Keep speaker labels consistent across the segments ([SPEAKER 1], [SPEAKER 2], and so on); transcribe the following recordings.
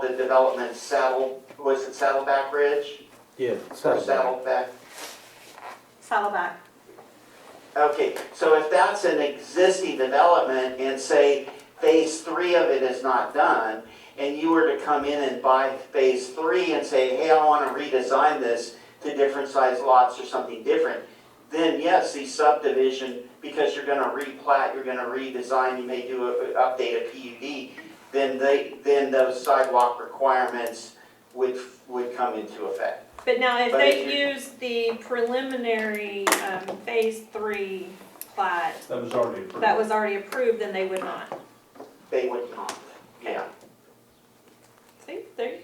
[SPEAKER 1] the development Saddle, was it Saddleback Ridge?
[SPEAKER 2] Yeah.
[SPEAKER 1] Or
[SPEAKER 2] Saddleback.
[SPEAKER 1] Saddleback?
[SPEAKER 3] Saddleback.
[SPEAKER 1] Okay, so if that's an existing development and say phase three of it is not done, and you were to come in and buy phase three and say, hey, I wanna redesign this to different size lots or something different, then yes, the subdivision, because you're gonna replat, you're gonna redesign, you may do a, update a PUD, then they, then those sidewalk requirements would, would come into effect.
[SPEAKER 3] But now if
[SPEAKER 1] But if
[SPEAKER 3] they use the preliminary, um, phase three plat
[SPEAKER 4] That was already approved.
[SPEAKER 3] that was already approved, then they would not.
[SPEAKER 1] They would not, yeah.
[SPEAKER 3] See, there you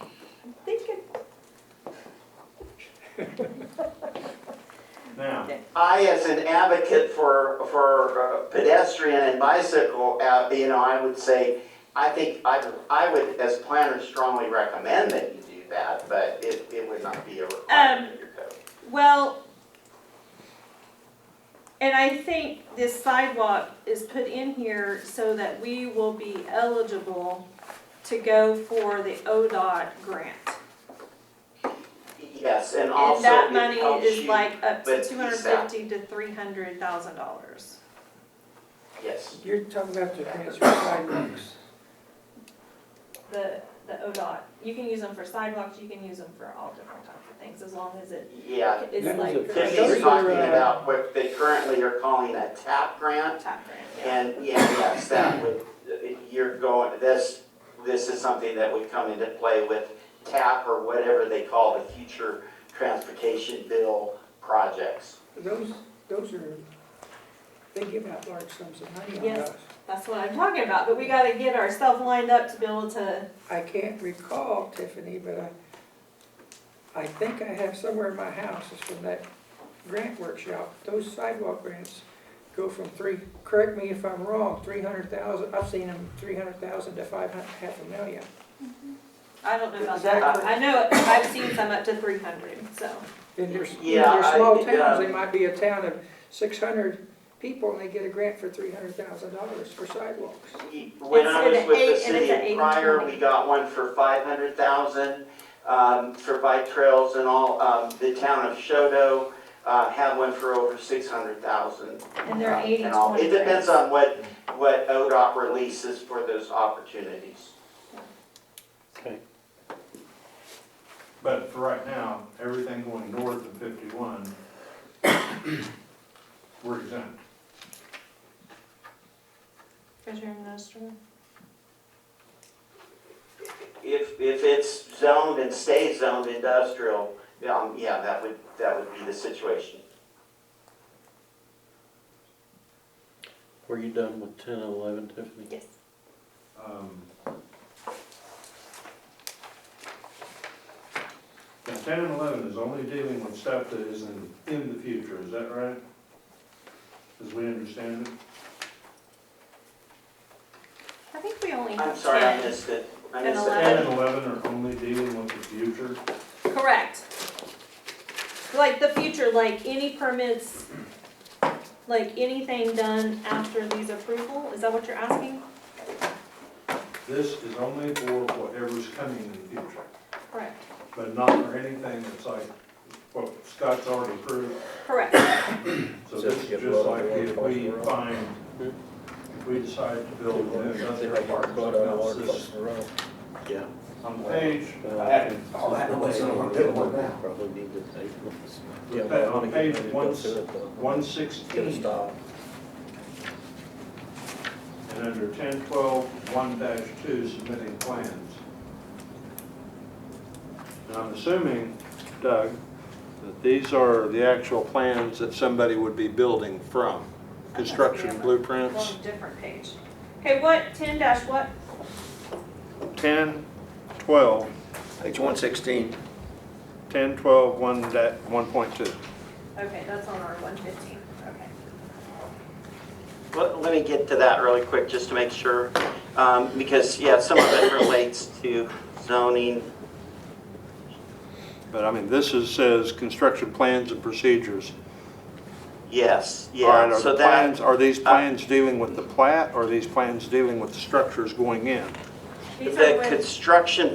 [SPEAKER 3] go. I'm thinking.
[SPEAKER 4] Now,
[SPEAKER 1] I, as an advocate for, for uh, pedestrian and bicycle, uh, you know, I would say, I think, I, I would, as planners, strongly recommend that you do that, but it, it would not be a
[SPEAKER 3] Um,
[SPEAKER 1] requirement in your code.
[SPEAKER 3] Well, and I think this sidewalk is put in here so that we will be eligible to go for the ODOT grant.
[SPEAKER 1] Yes, and
[SPEAKER 3] And
[SPEAKER 1] also
[SPEAKER 3] that
[SPEAKER 1] it
[SPEAKER 3] money
[SPEAKER 1] helps
[SPEAKER 3] is
[SPEAKER 1] you,
[SPEAKER 3] like up to
[SPEAKER 1] with
[SPEAKER 3] two hundred fifty to three hundred thousand dollars.
[SPEAKER 1] yes,
[SPEAKER 5] You're talking about the transfer sidewalks.
[SPEAKER 3] The, the ODOT, you can use them for sidewalks, you can use them for all different types of things, as long as it
[SPEAKER 1] yeah.
[SPEAKER 3] is
[SPEAKER 2] That was
[SPEAKER 3] like.
[SPEAKER 2] a
[SPEAKER 3] for
[SPEAKER 2] fifty-
[SPEAKER 3] a
[SPEAKER 1] Tiffany's
[SPEAKER 2] those are,
[SPEAKER 1] talking
[SPEAKER 2] uh,
[SPEAKER 1] about what they currently are calling a TAP grant,
[SPEAKER 3] Tap grant, yeah.
[SPEAKER 1] And, yeah, yes, that would, you're going, this, this is something that would come into play with TAP or whatever they call the future transportation bill projects.
[SPEAKER 5] Those, those are, they give out large sums of money on
[SPEAKER 3] Yes.
[SPEAKER 5] those.
[SPEAKER 3] That's what I'm talking about, but we gotta get ourselves lined up to be able to,
[SPEAKER 5] I can't recall, Tiffany, but I, I think I have somewhere in my house, it's from that grant workshop. Those sidewalk grants go from three, correct me if I'm wrong, three hundred thousand, I've seen them three hundred thousand to five hun- half a million.
[SPEAKER 3] I don't know about
[SPEAKER 5] Is
[SPEAKER 3] that,
[SPEAKER 5] that
[SPEAKER 3] I know, I've seen some up to three hundred, so.
[SPEAKER 5] In their, in
[SPEAKER 1] Yeah,
[SPEAKER 5] their small
[SPEAKER 1] I- yeah.
[SPEAKER 5] towns, they might be a town of six hundred people and they get a grant for three hundred thousand dollars for sidewalks.
[SPEAKER 1] E, When I was
[SPEAKER 3] It's an
[SPEAKER 1] with the
[SPEAKER 3] eight- and it's
[SPEAKER 1] city
[SPEAKER 3] an
[SPEAKER 1] of
[SPEAKER 3] eight and
[SPEAKER 1] Pryor,
[SPEAKER 3] twenty.
[SPEAKER 1] we got one for five hundred thousand, um, for bike trails and all, um, the town of Shodo, uh, had one for over six hundred thousand.
[SPEAKER 3] And they're eighty
[SPEAKER 1] And all,
[SPEAKER 3] twenty.
[SPEAKER 1] it depends on what, what ODOT releases for those opportunities.
[SPEAKER 2] Okay.
[SPEAKER 4] but for right now, everything going north of fifty-one, we're exempt.
[SPEAKER 3] Treasurer Minister.
[SPEAKER 1] If, if it's zoned and stays zoned industrial, um, yeah, that would, that would be the situation.
[SPEAKER 2] Were you done with ten and eleven, Tiffany?
[SPEAKER 3] Yes.
[SPEAKER 4] Um, Now, ten and eleven is only dealing with stuff that is in, in the future, is that right? As we understand it?
[SPEAKER 3] I think we only
[SPEAKER 1] I'm
[SPEAKER 3] have
[SPEAKER 1] sorry, I
[SPEAKER 3] ten.
[SPEAKER 1] missed it. I
[SPEAKER 3] And
[SPEAKER 1] missed
[SPEAKER 4] Ten
[SPEAKER 1] it.
[SPEAKER 4] and eleven are only dealing with the future.
[SPEAKER 3] Correct. Like the future, like any permits, like anything done after these approval, is that what you're asking?
[SPEAKER 4] This is only for whatever's coming in the future,
[SPEAKER 3] Correct.
[SPEAKER 4] but not for anything that's like what Scott's already approved.
[SPEAKER 3] Correct,
[SPEAKER 4] So this is just like if we find, if we decide to build a new industrial park, something else this,
[SPEAKER 2] Yeah.
[SPEAKER 4] on the page, Oh,
[SPEAKER 2] Probably need to take.
[SPEAKER 4] Yeah, but on page one- one sixteen, and under ten twelve, one dash two, submitting plans. And I'm assuming, Doug, that these are the actual plans that somebody would be building from, construction blueprints,
[SPEAKER 3] on a different page. Okay, what, ten dash what?
[SPEAKER 4] ten, twelve,
[SPEAKER 6] Page one sixteen.
[SPEAKER 4] ten, twelve, one da, one point two.
[SPEAKER 3] Okay, that's on our one fifteen, okay.
[SPEAKER 1] Let, let me get to that really quick, just to make sure, um, because, yeah, some of it relates to zoning.
[SPEAKER 4] But I mean, this is, says construction plans and procedures.
[SPEAKER 1] Yes,
[SPEAKER 4] All right,
[SPEAKER 1] yeah,
[SPEAKER 4] are
[SPEAKER 1] so
[SPEAKER 4] the
[SPEAKER 1] that,
[SPEAKER 4] plans, are these plans dealing with the plat, or are these plans dealing with the structures going in?
[SPEAKER 7] These are
[SPEAKER 2] the
[SPEAKER 7] with-
[SPEAKER 2] construction